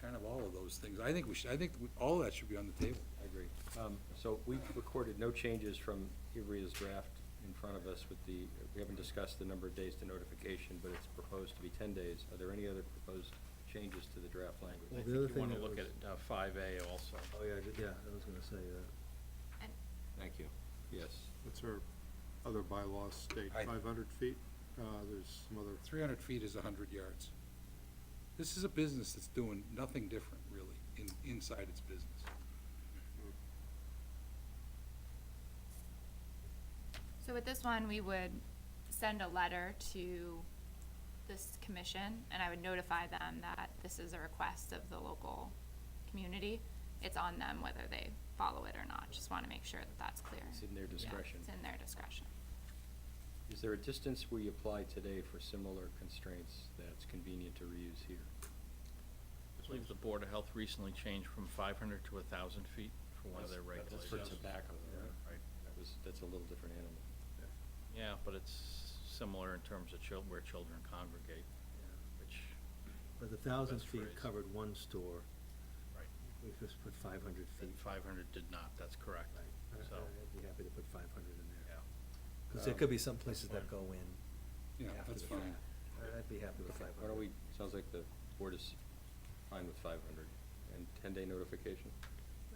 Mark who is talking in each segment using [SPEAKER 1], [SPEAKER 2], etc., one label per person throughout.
[SPEAKER 1] kind of all of those things. I think we should, I think we- all of that should be on the table.
[SPEAKER 2] I agree. Um, So we've recorded no changes from Ivrea's draft in front of us with the, we haven't discussed the number of days to notification, but it's proposed to be ten days. Are there any other proposed changes to the draft
[SPEAKER 3] I
[SPEAKER 2] language?
[SPEAKER 3] think
[SPEAKER 4] the other
[SPEAKER 3] you
[SPEAKER 4] thing
[SPEAKER 3] wanna
[SPEAKER 4] that
[SPEAKER 3] look at
[SPEAKER 4] was-
[SPEAKER 3] five A also.
[SPEAKER 4] Oh, yeah, I did- yeah, I was gonna say that.
[SPEAKER 5] And
[SPEAKER 2] Thank you. Yes.
[SPEAKER 6] What's our other bylaws state,
[SPEAKER 1] I-
[SPEAKER 6] five hundred feet? Uh, there's some other,
[SPEAKER 1] Three hundred feet is hundred yards. This is a business that's doing nothing different, really, in, inside its business.
[SPEAKER 5] so with this one, we would send a letter to this commission, and I would notify them that this is a request of the local community. It's on them whether they follow it or not, just wanna make sure that that's clear.
[SPEAKER 2] It's in their
[SPEAKER 5] Yeah,
[SPEAKER 2] discretion.
[SPEAKER 5] It's in their discretion.
[SPEAKER 2] Is there a distance we apply today for similar constraints that's convenient to reuse here?
[SPEAKER 3] I believe the Board of Health recently changed from five hundred to thousand feet for one of their
[SPEAKER 2] That's
[SPEAKER 3] regulations.
[SPEAKER 2] for tobacco,
[SPEAKER 3] Yeah.
[SPEAKER 2] right? That was, that's a little different animal.
[SPEAKER 3] Yeah, but it's similar in terms of chil- where children congregate, which,
[SPEAKER 4] But the thousand
[SPEAKER 3] Best
[SPEAKER 4] feet
[SPEAKER 3] phrase.
[SPEAKER 4] covered one store,
[SPEAKER 3] right,
[SPEAKER 4] we just put five hundred feet.
[SPEAKER 3] five hundred did not, that's correct.
[SPEAKER 4] Right.
[SPEAKER 3] So,
[SPEAKER 4] I- I'd be happy to put five hundred in
[SPEAKER 3] yeah. Um,
[SPEAKER 4] there. Cause there could be some places that
[SPEAKER 3] fine.
[SPEAKER 4] go in.
[SPEAKER 1] Yeah,
[SPEAKER 4] after
[SPEAKER 1] that's
[SPEAKER 4] the
[SPEAKER 1] fine.
[SPEAKER 4] fact. I- I'd be happy with
[SPEAKER 2] Okay,
[SPEAKER 4] five hundred.
[SPEAKER 2] Why don't we, sounds like the board is fine with five hundred and ten-day notification?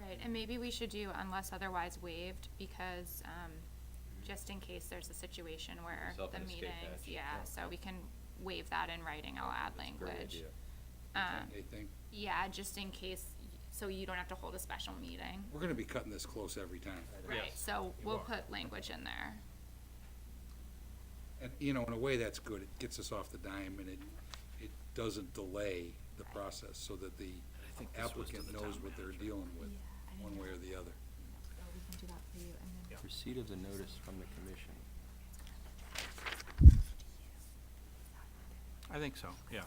[SPEAKER 5] Right, and maybe we should do unless otherwise waived, because, um,
[SPEAKER 2] Mm-hmm.
[SPEAKER 5] just in case there's a situation where
[SPEAKER 2] Yourself
[SPEAKER 5] the
[SPEAKER 2] an escape
[SPEAKER 5] meetings,
[SPEAKER 2] hatch.
[SPEAKER 5] yeah,
[SPEAKER 2] Yeah.
[SPEAKER 5] so we can waive that in writing, I'll
[SPEAKER 2] That's
[SPEAKER 5] add
[SPEAKER 2] a
[SPEAKER 5] language.
[SPEAKER 2] great idea.
[SPEAKER 5] Um,
[SPEAKER 1] They think,
[SPEAKER 5] yeah, just in case, so you don't have to hold a special meeting.
[SPEAKER 1] we're gonna be cutting this close every time.
[SPEAKER 5] Right,
[SPEAKER 3] Yes,
[SPEAKER 5] so
[SPEAKER 3] you
[SPEAKER 5] we'll
[SPEAKER 3] are.
[SPEAKER 5] put language in there.
[SPEAKER 1] And, you know, in a way, that's good. It gets us off the dime and it, it doesn't delay the process so that the
[SPEAKER 3] I think this was to
[SPEAKER 1] applicant
[SPEAKER 3] the
[SPEAKER 1] knows
[SPEAKER 3] town
[SPEAKER 1] what they're
[SPEAKER 3] manager.
[SPEAKER 1] dealing with,
[SPEAKER 5] Yeah, I didn't
[SPEAKER 1] one way or
[SPEAKER 5] know.
[SPEAKER 1] the other.
[SPEAKER 5] So we can do that for you and then.
[SPEAKER 3] Yeah.
[SPEAKER 2] Receipt of the notice from the commission.
[SPEAKER 3] I think so, yeah.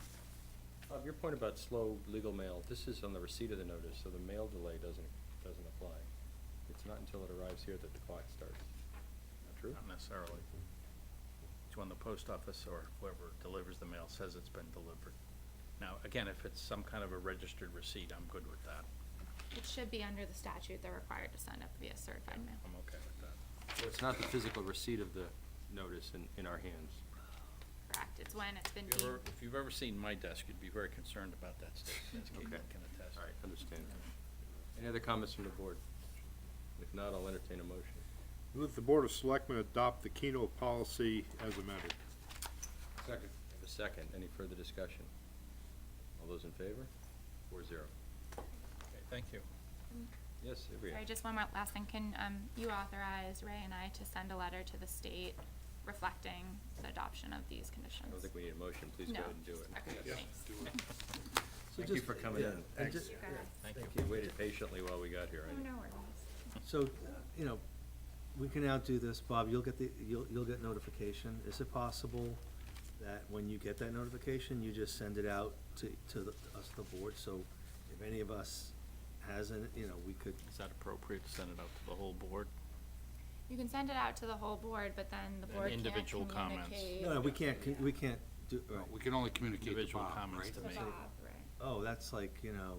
[SPEAKER 2] Bob, your point about slow legal mail, this is on the receipt of the notice, so the mail delay doesn't, doesn't apply. It's not until it arrives here that the clock starts. Not true?
[SPEAKER 3] Not necessarily. It's when the post office or whoever delivers the mail says it's been delivered. Now, again, if it's some kind of a registered receipt, I'm good with that.
[SPEAKER 5] It should be under the statute, they're required to send up via certified mail.
[SPEAKER 3] I'm okay with that.
[SPEAKER 2] Well, it's not the physical receipt of the notice in, in our hands.
[SPEAKER 5] Correct, it's when it's been
[SPEAKER 3] If you've ever-
[SPEAKER 5] deemed,
[SPEAKER 3] If you've ever seen my desk, you'd be very concerned about that state, as Caitlin
[SPEAKER 2] Okay.
[SPEAKER 3] can attest.
[SPEAKER 2] All right, understand. Any other comments from the board? If not, I'll entertain a motion.
[SPEAKER 6] move the Board of Selectmen adopt the Keno policy as amended.
[SPEAKER 1] Second.
[SPEAKER 2] Have A second, any further discussion? All those in favor? Four zero.
[SPEAKER 3] Okay, Thank you.
[SPEAKER 2] Yes, Ivrea?
[SPEAKER 5] sorry, just one more last thing, can, um, you authorize Ray and I to send a letter to the state reflecting the adoption of these
[SPEAKER 2] I
[SPEAKER 5] conditions?
[SPEAKER 2] don't think we need a motion, please go
[SPEAKER 5] No.
[SPEAKER 2] ahead and do it.
[SPEAKER 5] Okay,
[SPEAKER 1] Yeah,
[SPEAKER 5] thanks.
[SPEAKER 1] do it.
[SPEAKER 4] So
[SPEAKER 2] Thank you
[SPEAKER 4] just-
[SPEAKER 2] for coming
[SPEAKER 4] yeah,
[SPEAKER 2] in.
[SPEAKER 4] and ju-
[SPEAKER 5] You guys.
[SPEAKER 3] Thank
[SPEAKER 4] Thank
[SPEAKER 3] you.
[SPEAKER 2] You waited patiently while we got here,
[SPEAKER 5] Oh,
[SPEAKER 2] I know.
[SPEAKER 5] no worries.
[SPEAKER 4] So, uh, you know, we can now do this, Bob, you'll get the, you'll, you'll get notification. Is it possible that when you get that notification, you just send it out to, to the, us, the board, so if any of us hasn't, you know, we could,
[SPEAKER 3] Is that appropriate to send it out to the whole board?
[SPEAKER 5] You can send it out to the whole board, but then the
[SPEAKER 3] And
[SPEAKER 5] board can't
[SPEAKER 3] individual comments.
[SPEAKER 5] communicate.
[SPEAKER 4] no, no, we can't, con- we can't do, right.
[SPEAKER 1] We can only communicate to
[SPEAKER 3] Individual
[SPEAKER 1] Bob,
[SPEAKER 3] comments
[SPEAKER 1] right?
[SPEAKER 3] to
[SPEAKER 5] To
[SPEAKER 3] me.
[SPEAKER 5] Bob, right.
[SPEAKER 4] oh, that's like, you know,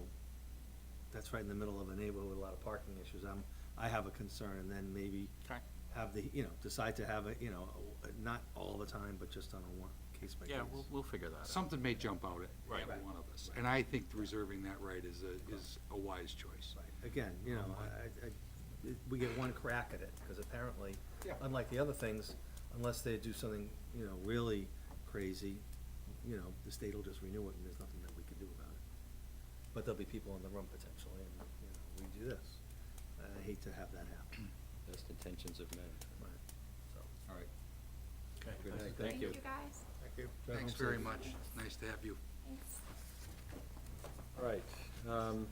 [SPEAKER 4] that's right in the middle of a neighborhood with a lot of parking issues, I'm, I have a concern, and then maybe
[SPEAKER 3] Okay.
[SPEAKER 4] have the, you know, decide to have it, you know, a- not all the time, but just on a one, case by case.
[SPEAKER 3] Yeah, we'll, we'll figure that out.
[SPEAKER 1] Something may jump out at
[SPEAKER 3] Right.
[SPEAKER 1] every one of us, and I think reserving that right is a, is a wise choice.
[SPEAKER 4] Again, you know, I, I, I- we get one crack at it, because apparently, unlike the other things, unless they do something, you know, really crazy, you know, the state will just renew it, and there's nothing that we can do about it. But there'll be people in the room potentially, and, you know, we do this. I hate to have that happen.
[SPEAKER 2] Best intentions of men.
[SPEAKER 4] So,
[SPEAKER 2] All right.
[SPEAKER 3] Okay.
[SPEAKER 2] Good night.
[SPEAKER 5] Thank you, guys.
[SPEAKER 6] Thank you.
[SPEAKER 4] drive
[SPEAKER 1] Thanks
[SPEAKER 4] home
[SPEAKER 1] very
[SPEAKER 4] safe.
[SPEAKER 1] much. Nice to have you.
[SPEAKER 5] Thanks.
[SPEAKER 2] All right, um,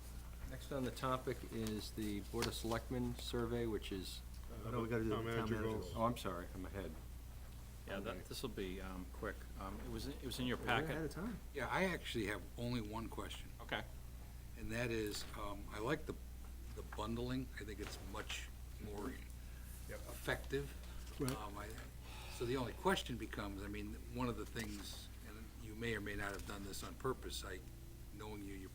[SPEAKER 2] next on the topic is the Board of Selectmen survey, which is,
[SPEAKER 4] Oh, No, we gotta do the
[SPEAKER 6] Town
[SPEAKER 4] town
[SPEAKER 6] manager
[SPEAKER 4] manager.
[SPEAKER 6] goals.
[SPEAKER 2] oh, I'm sorry, I'm ahead.
[SPEAKER 3] Yeah,
[SPEAKER 2] Okay.
[SPEAKER 3] that, this'll be, um, quick. Um, it was, it was in your
[SPEAKER 4] We're ahead
[SPEAKER 3] packet.
[SPEAKER 4] of time.
[SPEAKER 1] Yeah, I actually have only one question,
[SPEAKER 3] Okay.
[SPEAKER 1] and that is, um, I like the, the bundling. I think it's much more effective.
[SPEAKER 4] Right.
[SPEAKER 1] Um, I, so the only question becomes, I mean, one of the things, and you may or may not have done this on purpose, I, knowing you, you